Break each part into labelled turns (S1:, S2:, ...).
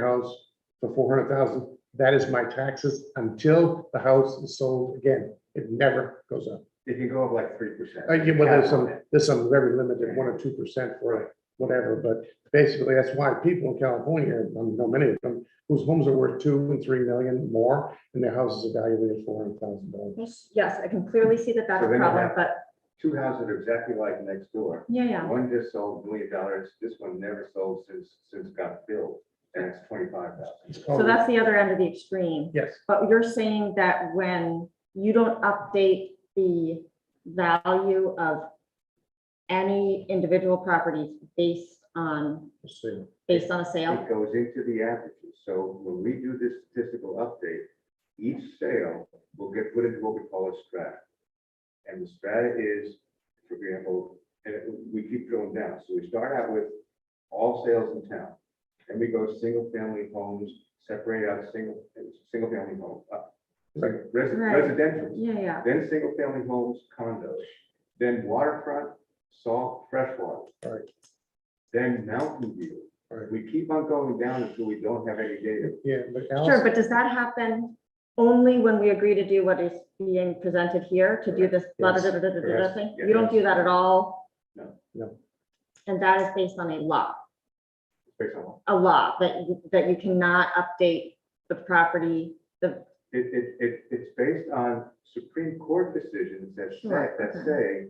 S1: house for four hundred thousand, that is my taxes until the house is sold again. It never goes up.
S2: If you go up like three percent.
S1: I get, well, there's some, there's some very limited, one or two percent for whatever, but basically that's why people in California, I know many of them, whose homes are worth two and three million more, and their houses are valued at four hundred thousand dollars.
S3: Yes, I can clearly see that that's
S2: So
S3: a
S2: then you
S3: problem,
S2: have-
S3: but
S2: Two houses are exactly like next door.
S3: yeah, yeah.
S2: One just sold a million dollars, this one never sold since, since it got built, and it's twenty-five thousand.
S3: So that's the other end of the extreme.
S1: Yes,
S3: But you're saying that when you don't update the value of any individual property based on,
S1: let's see.
S3: based on a sale?
S2: It goes into the averages, so when we do this statistical update, each sale will get put into what we call a strata. And the strata is, for example, and it- we keep going down, so we start out with all sales in town. Then we go single family homes, separate out single, single family home, uh,
S1: Right.
S2: resi-
S3: Right.
S2: residential
S3: Yeah, yeah.
S2: then single-family homes, condos, then waterfront, salt, freshwater.
S1: Right.
S2: Then Mountain View.
S1: Right.
S2: We keep on going down until we don't have any data.
S1: Yeah, but
S3: Sure,
S1: Alice,
S3: but does that happen only when we agree to do what is being presented here, to do this da da da da da da da
S1: Correct.
S3: thing?
S2: Yes.
S3: You don't do that at all?
S2: No.
S1: No.
S3: And that is based on a law,
S2: based on what-
S3: a law that, you- that you cannot update the property.
S2: It, it, it, it's based on Supreme Court decisions that say,
S3: Sure,
S2: that
S3: okay.
S2: say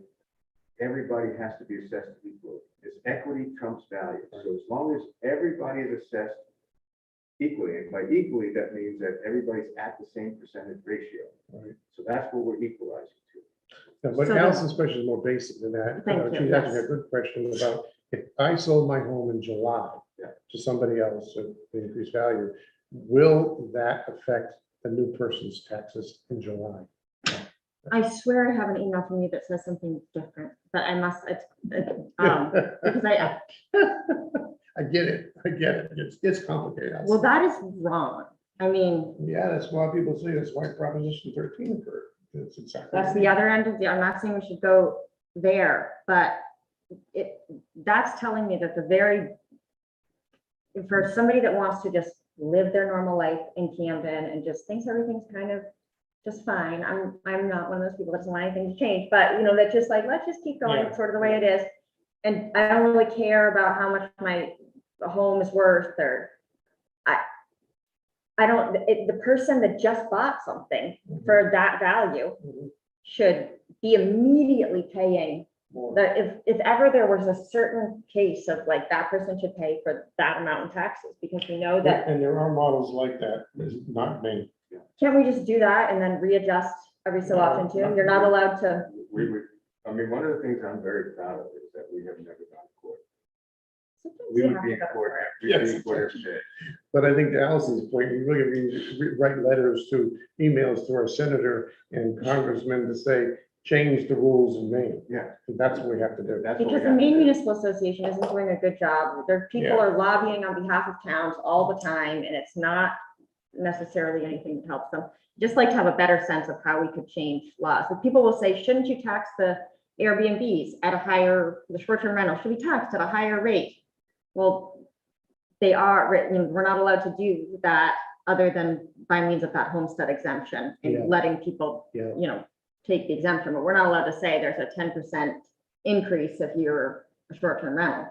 S2: everybody has to be assessed equally. It's equity trumps value. So as long as everybody is assessed equally, and by equally, that means that everybody's at the same percentage ratio.
S1: Right.
S2: So that's what we're equalizing to.
S1: no, but
S3: So the-
S1: Allison's question is more basic than that.
S3: Thank
S1: Uh,
S3: you,
S1: She's asking a
S3: yes.
S1: good question about if I sold my home in July
S2: Yeah.
S1: to somebody else at the increased value, will that affect the new person's taxes in July?
S3: I swear I have an email from you that says something different, but I must, it's, it's, um, because I,
S1: I get it, I get it, it's, it's complicated.
S3: well, that is wrong. I mean,
S1: Yeah, that's why people say that's why Proposition thirteen occurred. That's exactly.
S3: That's the other end of the, I'm not saying we should go there, but it, that's telling me that the very, for somebody that wants to just live their normal life in Camden and just thinks everything's kind of just fine, I'm, I'm not one of those people that doesn't want anything to change, but you know, that's just like, let's just keep
S1: Yeah.
S3: going sort of the way it is. And I don't really care about how much my home is worth or I, I don't, it, the person that just bought something for that value
S1: Mhm.
S3: should be immediately paying.
S1: More.
S3: The, if, if ever there was a certain case of like that person should pay for that amount in taxes, because we know that,
S1: And there are models like that, it's not me.
S3: can't we just do that and then readjust every so
S1: No,
S3: often too?
S2: not
S3: You're not
S2: really.
S3: allowed to,
S2: We would, I mean, one of the things I'm very proud of is that we have never gone to court.
S3: sometimes
S2: We
S3: you
S2: would
S3: have
S2: be
S3: to
S2: in
S3: go to
S2: court,
S3: court.
S2: we would be in
S1: Yes.
S2: court every day.
S1: But I think to Allison's point, we really need to re- write letters to, emails to our senator and congressmen to say, change the rules in Maine.
S2: Yeah.
S1: And That's what we have to do.
S2: That's what we
S3: Because the
S2: have to
S3: Maine
S2: do.
S3: Municipal Association isn't doing a good job. Their people
S1: Yeah.
S3: are lobbying on behalf of towns all the time, and it's not necessarily anything that helps them. Just like to have a better sense of how we could change laws. So people will say, shouldn't you tax the Airbnbs at a higher, the short-term rental should be taxed at a higher rate? Well, they are written, we're not allowed to do that other than by means of that homestead exemption
S1: Yeah.
S3: and letting people,
S1: Yeah.
S3: you know, take the exemption, but we're not allowed to say there's a ten percent increase if you're a short-term rental,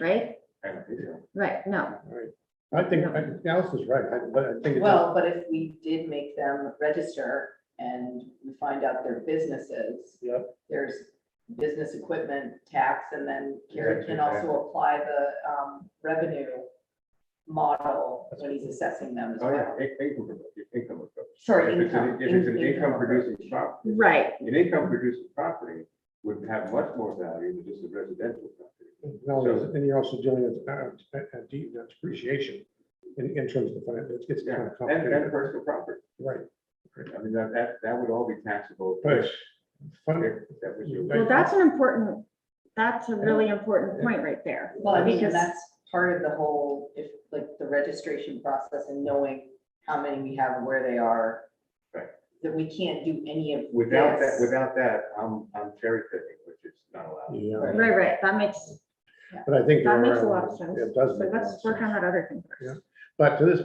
S3: right?
S2: I don't think so.
S3: Right, no,
S1: Right. I think, I think Allison's right, I, but I think. it's-
S4: Well, but if we did make them register and we find out their businesses.
S1: Yep.
S4: There's business equipment tax and then Gary
S2: Exactly,
S4: can
S2: yeah.
S4: also apply the um revenue model when he's assessing them as
S2: Oh, yeah,
S4: well.
S2: in- income, income approach.
S4: Sure,
S2: If it's
S4: income.
S2: an- If it's an
S4: in-
S2: income
S4: approach.
S2: producing property,
S3: right,
S2: an income producing property would have much more value than just a residential property.
S1: No, there's- and you're also dealing with, uh, uh, de- depreciation in, in terms of, the it's, it's kind
S2: Yeah,
S1: of
S2: and, and
S1: complicated.
S2: personal property.
S1: Right.
S2: I mean, that, that, that would all be taxable.
S1: But fun-
S2: If that was your.
S3: well, that's an important, that's a really important point right there.
S4: Well, I mean,
S3: Because-
S4: and that's part of the whole, if like the registration process and knowing how many we have and where they are.
S2: Right.
S4: That we can't do any of this.
S2: Without that, without that, I'm, I'm cherry picking, which is not allowed.
S1: Yeah,
S4: Right.
S3: Right, right, that makes,
S1: but I think.
S3: that
S1: there
S3: makes a
S1: are-
S3: lot of sense.
S1: It does.
S3: So
S1: make a lot
S3: let's
S1: of
S3: work on
S1: sense.
S3: that other thing
S1: Yeah.
S3: first.
S1: But to this